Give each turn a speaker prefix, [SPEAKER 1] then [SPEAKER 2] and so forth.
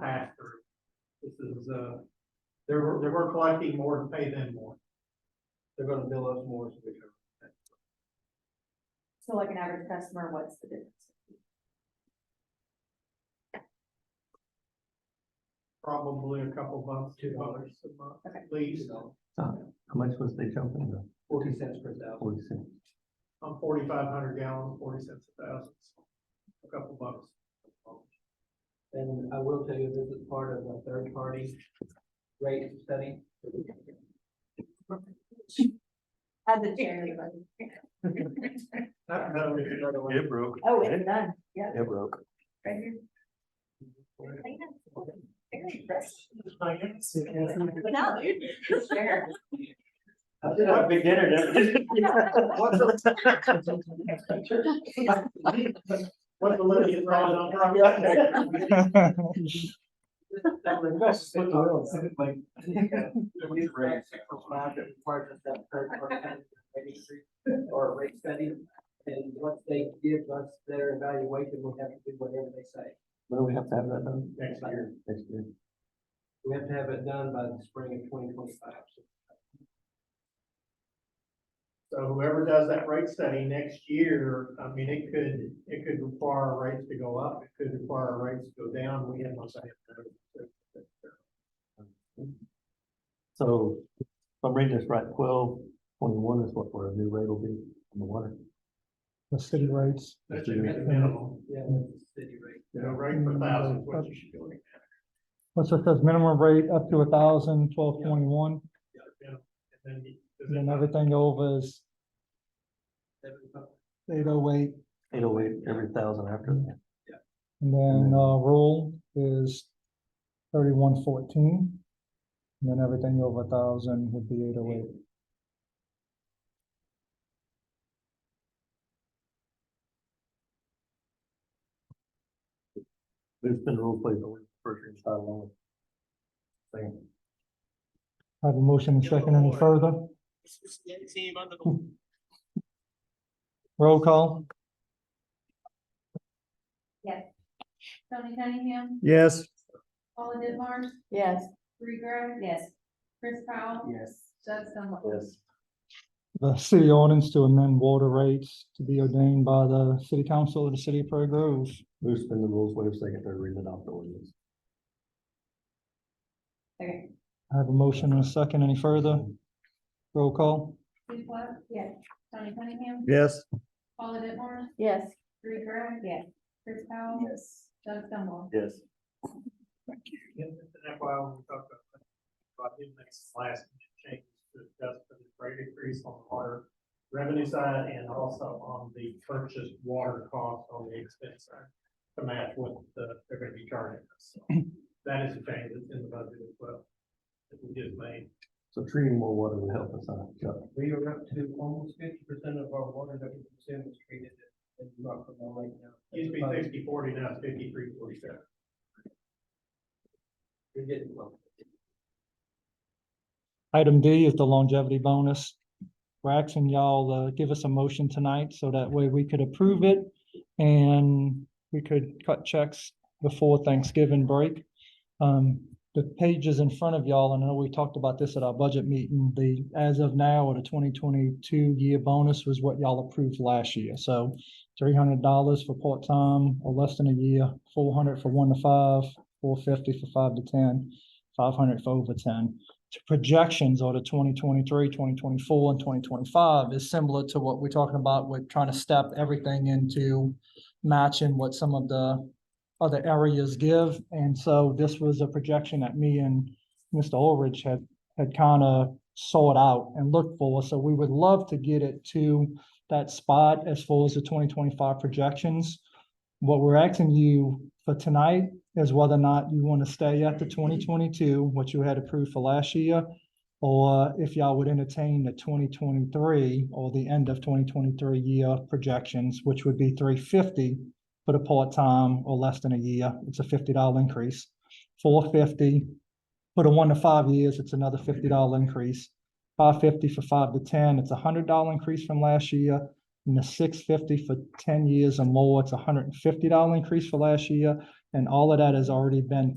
[SPEAKER 1] pass through. This is, uh, they were, they were collecting more to pay them more. They're gonna bill us more. so we can-
[SPEAKER 2] So like an average customer, what's the difference?
[SPEAKER 1] Probably a couple bucks, two dollars a month,
[SPEAKER 2] Okay.
[SPEAKER 1] at least,
[SPEAKER 3] How much was they jumping to?
[SPEAKER 4] forty cents per thousand.
[SPEAKER 3] Forty cents.
[SPEAKER 1] on forty-five hundred gallons, forty cents a thousand. so A couple bucks.
[SPEAKER 4] And I will tell you, this is part of a third-party rate study.
[SPEAKER 2] As a charity, but.
[SPEAKER 1] Not, no, it's another one.
[SPEAKER 3] It broke,
[SPEAKER 2] Oh, it's done, yeah,
[SPEAKER 3] it broke.
[SPEAKER 2] right here. Very impressive. No, dude, it's fair.
[SPEAKER 4] I did a beginner.
[SPEAKER 1] What's the limit? It's right on.
[SPEAKER 4] Or a rate study, and once they give us their evaluation, we'll have to do whatever they say.
[SPEAKER 3] When do we have to have that done?
[SPEAKER 1] Next
[SPEAKER 4] year.
[SPEAKER 3] Next year.
[SPEAKER 4] We have to have it done by the spring of twenty twenty-five.
[SPEAKER 1] So whoever does that rate study next year, I mean, it could, it could require our rates to go up, it could require our rates to go down, we have no say. in that.
[SPEAKER 3] So, if I'm reading this right, twelve twenty-one is what our new rate will be on the water.
[SPEAKER 5] the city rates.
[SPEAKER 1] That should be the minimum,
[SPEAKER 4] Yeah, that's the city rate.
[SPEAKER 1] you know, rate per thousand, is what you should be looking at.
[SPEAKER 5] What's it says minimum rate up to a thousand, twelve twenty-one,
[SPEAKER 1] Yeah, yeah. And then you-
[SPEAKER 5] and then everything over is eight oh eight.
[SPEAKER 3] Eight oh eight every thousand after that.
[SPEAKER 5] And then, uh, rule is thirty-one fourteen. And then everything over a thousand would be eight oh eight.
[SPEAKER 3] There's been rule plays over the first reading side alone. Second.
[SPEAKER 5] I Have a motion and second any further? Roll call?
[SPEAKER 2] Tony Cunningham,
[SPEAKER 5] Yes.
[SPEAKER 2] Paula Denmark,
[SPEAKER 6] Yes.
[SPEAKER 2] Bree Greg. Yes. Chris Powell.
[SPEAKER 4] Yes.
[SPEAKER 2] Doug Stumble.
[SPEAKER 3] Yes.
[SPEAKER 5] The city ordinance to amend water rates to be ordained by the city council of the city of Prairie Grove.
[SPEAKER 3] Move suspend the rules, waive second, third reading, adopt the ordinance.
[SPEAKER 2] Okay.
[SPEAKER 5] I have a motion and a second any further? Roll call?
[SPEAKER 2] Steve Clark. Yes. Tony Cunningham,
[SPEAKER 3] Yes.
[SPEAKER 2] Paula Denmark,
[SPEAKER 6] Yes.
[SPEAKER 2] Bree Greg. Yes. Chris Powell.
[SPEAKER 4] Yes.
[SPEAKER 2] Doug Stumble.
[SPEAKER 3] Yes.
[SPEAKER 1] And that's why when we talked about, that, about him next last change to adjust for the rate increase on our revenue side and also on the purchase water cost on the expense side to match what the, they're gonna be charging us. So That is a change that's in the budget as well, that we just made.
[SPEAKER 3] So treating more water would help us out. Chuck.
[SPEAKER 4] We are up to almost fifty percent of our water that we consume is treated in Rockville Lake now.
[SPEAKER 1] Used to be sixty forty, now it's fifty-three forty-seven.
[SPEAKER 4] You're getting close.
[SPEAKER 5] Item D is the longevity bonus. We're asking y'all uh give us a motion tonight so that way we could approve it and we could cut checks before Thanksgiving break. Um, the pages in front of y'all, and I know we talked about this at our budget meeting, the as of now or the twenty twenty-two year bonus was what y'all approved last year. So three hundred dollars for part-time or less than a year, four hundred for one to five, four fifty for five to ten, five hundred for over ten to projections or to 2023, 2024, and 2025 is similar to what we're talking about. We're trying to step everything into matching what some of the other areas give. And so this was a projection that me and Mr. Ulrich had, had kind of sought out and looked for. So we would love to get it to that spot as far as the 2025 projections. What we're asking you for tonight is whether or not you want to stay at the twenty twenty-two, what you had approved for last year, or if y'all would entertain the twenty twenty-three or the end of twenty twenty-three year projections, which would be three fifty for the part-time or less than a year, it's a fifty dollar increase. Four fifty, for the one to five years, it's another fifty dollar increase. Five fifty for five to ten, it's a hundred dollar increase from last year. And the six fifty for ten years or more, it's a hundred and fifty dollar increase for last year. And all of that has already been